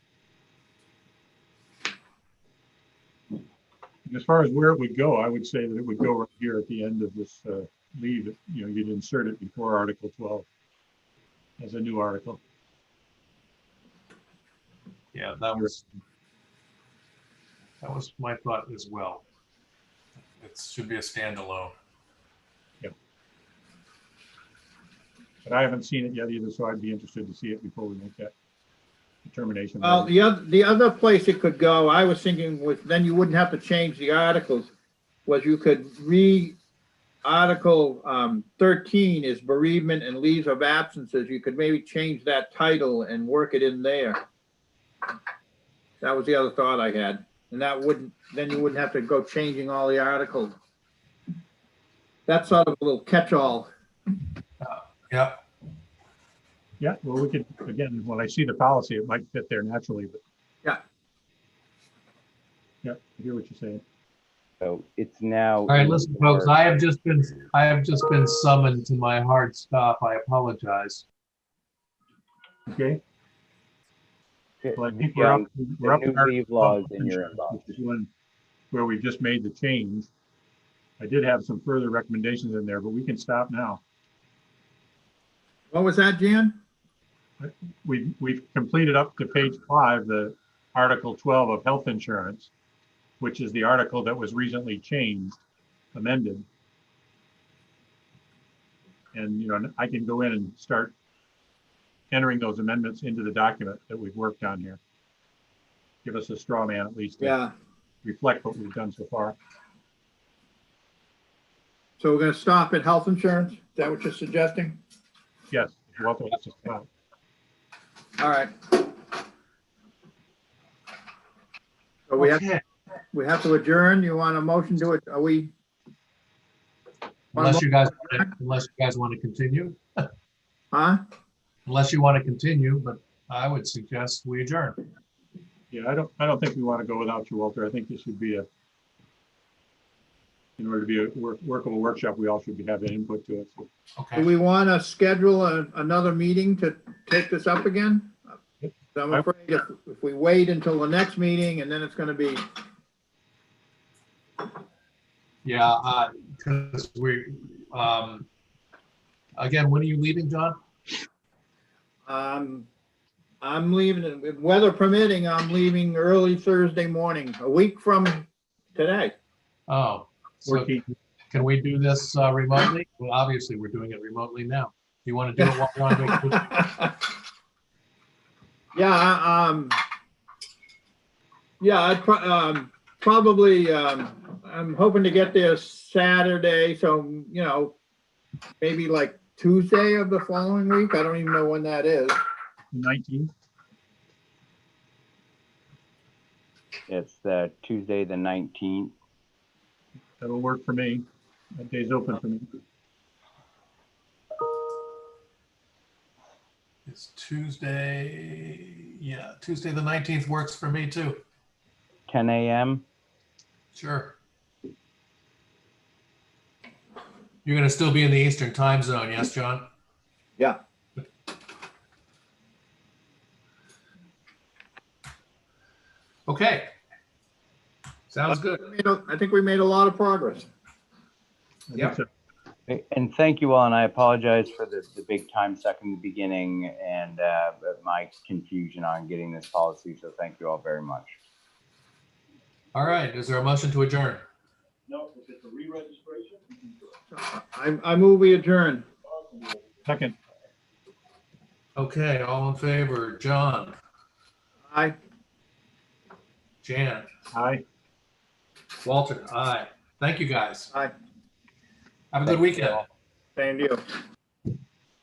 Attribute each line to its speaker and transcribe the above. Speaker 1: as far as where it would go, I would say that it would go right here at the end of this uh, leave, it, you know, you'd insert it before Article 12 as a new article.
Speaker 2: Yeah, that was, that was my thought as well. It should be a standalone.
Speaker 1: But I haven't seen it yet either, so I'd be interested to see it before we make that determination.
Speaker 3: Well, the other, the other place it could go, I was thinking was, then you wouldn't have to change the articles, was you could re, Article um, thirteen is bereavement and leaves of absences, you could maybe change that title and work it in there. That was the other thought I had, and that wouldn't, then you wouldn't have to go changing all the articles. That's sort of a little catch-all.
Speaker 2: Yeah,
Speaker 1: Yeah, well, we could, again, when I see the policy, it might fit there naturally, but.
Speaker 3: Yeah.
Speaker 1: Yeah, I hear what you're saying.
Speaker 4: So it's now.
Speaker 5: All right, listen, folks, I have just been, I have just been summoned to my hard stop. I apologize.
Speaker 1: Okay, well, I think we're up.
Speaker 4: The
Speaker 1: we're up to
Speaker 4: new
Speaker 1: our-
Speaker 4: leave laws in your inbox.
Speaker 1: which is one Where we just made the change. I did have some further recommendations in there, but we can stop now.
Speaker 3: What was that, Jan?
Speaker 1: We've, we've completed up to page five, the Article 12 of health insurance, which is the article that was recently changed, amended. And, you know, and I can go in and start entering those amendments into the document that we've worked on here. Give us a straw man at least to
Speaker 3: Yeah,
Speaker 1: reflect what we've done so far.
Speaker 3: so we're gonna stop at health insurance, is that what you're suggesting?
Speaker 1: Yes, you're welcome to stop.
Speaker 3: All right. So we have,
Speaker 2: okay,
Speaker 3: we have to adjourn. You want a motion to it? Are we?
Speaker 5: Unless you guys, unless you guys want to continue,
Speaker 3: Huh?
Speaker 5: unless you want to continue, but I would suggest we adjourn.
Speaker 1: Yeah, I don't, I don't think we want to go without you, Walter. I think this should be a, in order to be a work- workable workshop, we all should be having input to it. So
Speaker 3: Do
Speaker 5: Okay,
Speaker 3: we want to schedule a- another meeting to take this up again? I'm afraid if, if we wait until the next meeting and then it's gonna be,
Speaker 5: yeah, because we, um, again, when are you leaving, John?
Speaker 3: um, I'm leaving, it- weather permitting, I'm leaving early Thursday morning, a week from today.
Speaker 5: Oh, so
Speaker 1: 14,
Speaker 5: can we do this uh, remotely? Well, obviously, we're doing it remotely now. You want to do it while we're on vacation?
Speaker 3: Yeah, I- um, yeah, I'd pro- um, probably, um, I'm hoping to get there Saturday, so, you know, maybe like Tuesday of the following week. I don't even know when that is.
Speaker 1: 19,
Speaker 4: It's the Tuesday, the nineteenth.
Speaker 1: that'll work for me. That day's open for me.
Speaker 2: it's Tuesday, yeah, Tuesday, the 19th works for me too.
Speaker 4: Ten AM.
Speaker 2: Sure.
Speaker 5: You're going to still be in the Eastern Time Zone, yes, John?
Speaker 3: Yeah.
Speaker 5: Okay. Sounds good.
Speaker 3: We made a- I think we made a lot of progress.
Speaker 1: I think
Speaker 5: Yep.
Speaker 1: so.
Speaker 4: And thank you all, and I apologize for the, the big time suck in the beginning and, uh, my confusion on getting this policy, so thank you all very much.
Speaker 5: All right, is there a motion to adjourn?
Speaker 3: I, I move we adjourn.
Speaker 1: Second,
Speaker 5: Okay, all in favor, John,
Speaker 3: Aye.
Speaker 5: Jan,
Speaker 1: aye.
Speaker 5: Walter, aye. Thank you, guys.
Speaker 3: Aye.
Speaker 5: Have a good weekend.
Speaker 3: Same to you.